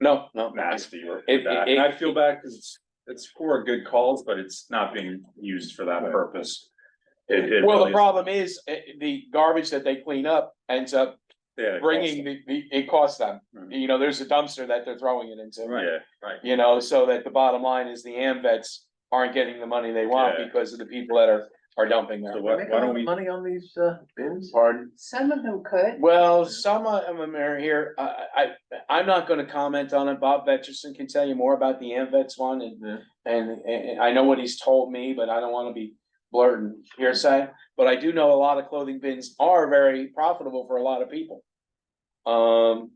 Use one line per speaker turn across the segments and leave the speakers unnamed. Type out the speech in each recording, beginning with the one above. No, no.
nasty with
It-
that.
it-
And I feel bad because it's, it's for good calls, but it's not being used for that purpose. It, it
Well,
really
the
is-
problem is, eh, the garbage that they clean up ends up
yeah, it costs-
bringing the, the, it costs them.
Mhm.
You know, there's a dumpster that they're throwing it into,
Yeah, right.
you know, so that the bottom line is the AM vets aren't getting the money they want
Yeah.
because of the people that are, are dumping
So
them.
why, why don't we,
Money on these uh bins? Pardon?
Some of them could.
Well, some of them are here, I, I, I'm not gonna comment on it, Bob Vetcherson can tell you more about the AM vets one and
Yeah.
And, and I know what he's told me, but I don't wanna be blurting hearsay, but I do know a lot of clothing bins are very profitable for a lot of people. Um,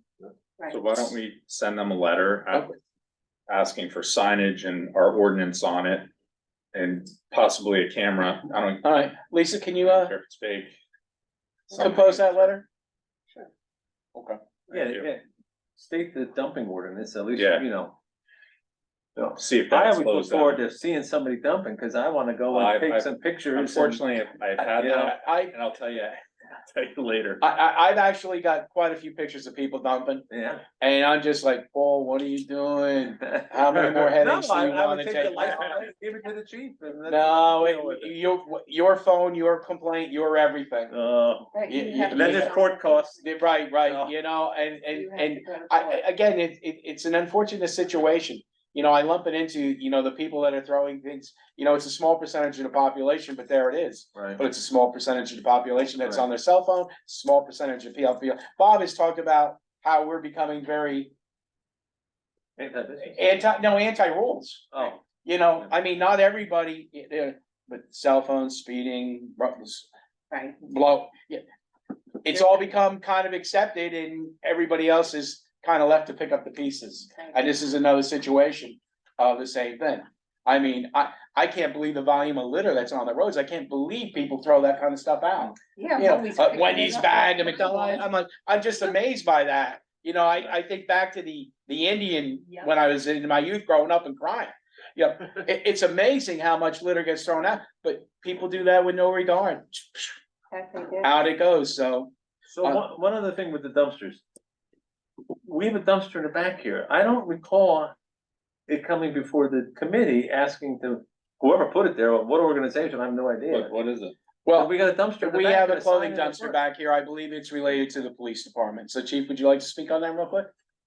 so why don't we send them a letter a-
Okay.
asking for signage and our ordinance on it? And possibly a camera, I don't,
alright, Lisa, can you,
I don't
uh,
care if it's fake.
compose that letter?
Yeah,
Thank you.
yeah, state the dumping ordinance, at least,
Yeah.
you know.
See if
I
that
always look
slows
forward
down.
to seeing somebody dumping, cause I wanna go
I've-
and take
I've-
some pictures. and-
Unfortunately, I've had
I,
that,
I,
and I'll tell you, I'll tell you later.
I, I've actually got quite a few pictures of people dumping,
Yeah.
and I'm just like, Paul, what are you doing? How many more
No,
headaches do
I,
you
I would
wanna
take the
take?
life, I'd give it to the chief. and let
No,
him
it,
deal with it.
your, your phone, your complaint, your everything.
Uh,
Right,
you-
you
you-
have
and then
to-
there's court costs.
Right,
No.
right, you know, and,
you
and,
have
and
to go to
I,
court.
I- again, it, it, it's an unfortunate situation. You know, I lump it into, you know, the people that are throwing things, you know, it's a small percentage of the population, but there it is.
Right.
But it's a small percentage of the population that's on their cell phone, small percentage of PLP. Bob has talked about how we're becoming very anti, no, anti-rules.
Oh,
You know, I mean, not everybody, you know, but cell phones, speeding, ru-
Right,
blow, yeah. It's all become kind of accepted and everybody else is kind of left to pick up the pieces. And this is another situation of the same thing. I mean, I, I can't believe the volume of litter that's on the roads. I can't believe people throw that kind of stuff out.
yeah.
You know,
Wendy's
uh,
picking
Wendy's
it up.
bag, the McDonald's, I'm like, I'm just amazed by that. You know, I, I think back to the, the Indian,
Yeah.
when I was in my youth growing up and crying. You know, it, it's amazing how much litter gets thrown out, but people do that with no regard.
That they did.
Out it goes, so.
so
Uh,
one, one other thing with the dumpsters. We have a dumpster in the back here. I don't recall it coming before the committee asking to, whoever put it there, or what organization, I have no idea.
What, what is it?
Well,
Well,
we got a dumpster. in the
we
back
have
and
a clothing
sign in the
dumpster
front.
back here. I believe it's related to the police department. So chief, would you like to speak on that real quick?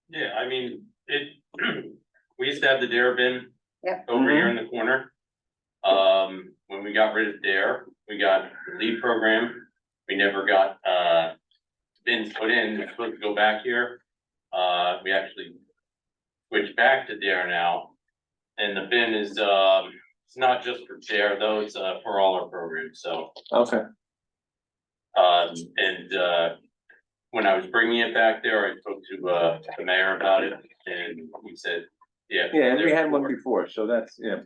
Yeah, I mean, it, we used to have the dare bin.
Yep.
Over here in the corner. Um, when we got rid of dare, we got the lead program, we never got, uh, bins put in, we're supposed to go back here. Uh, we actually switched back to dare now. And the bin is, um, it's not just for dare though, it's, uh, for all our programs, so.
Okay.
Um, and, uh, when I was bringing it back there, I spoke to, uh, the mayor about it and he said, yeah.
Yeah, and we had one
therefore-
before, so that's, yeah,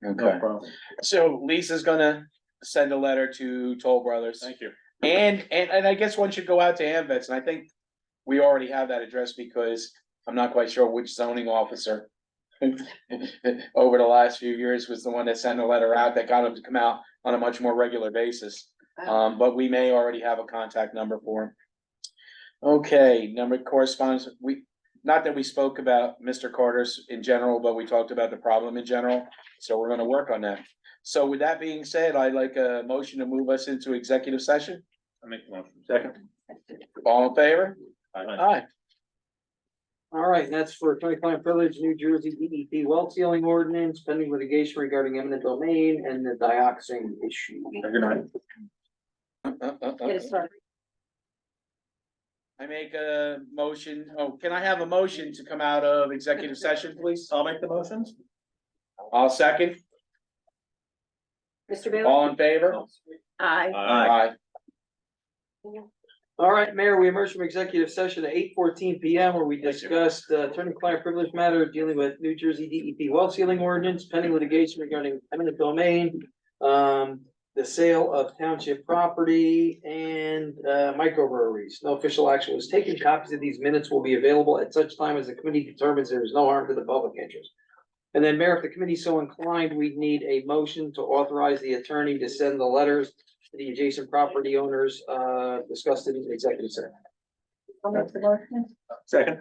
no problem.
So Lisa's gonna send a letter to Toll Brothers.
Thank you.
And, and, and I guess one should go out to AMVets, and I think we already have that address because I'm not quite sure which zoning officer over the last few years was the one that sent a letter out that got him to come out on a much more regular basis. Um, but we may already have a contact number for him. Okay, number of correspondence, we, not that we spoke about Mr. Carter's in general, but we talked about the problem in general, so we're gonna work on that. So with that being said, I'd like a motion to move us into executive session.
I make the motion.
Second.
All in favor? Aye.
All right, that's for twenty-five Village, New Jersey, EDP well sealing ordinance, pending litigation regarding eminent domain and the dioxin issue.
Good night.
Uh, uh, uh,
Get it started.
I make a motion, oh, can I have a motion to come out of executive session, please?
I'll make the motions.
I'll second,
Mr. Baylor?
all in favor?
Aye.
Aye.
All right, Mayor, we emerged from executive session at eight fourteen P M where we
Thank you.
discussed uh, attorney-client privilege matter dealing with New Jersey D E P well sealing ordinance, pending litigation regarding eminent domain. Um, the sale of township property and uh microbreweries. No official action was taken. Copies of these minutes will be available at such time as the committee determines there is no harm to the public interest. And then, Mayor, if the committee so inclined, we'd need a motion to authorize the attorney to send the letters to the adjacent property owners uh discussed in the executive session.
I'll make the motion.
Second.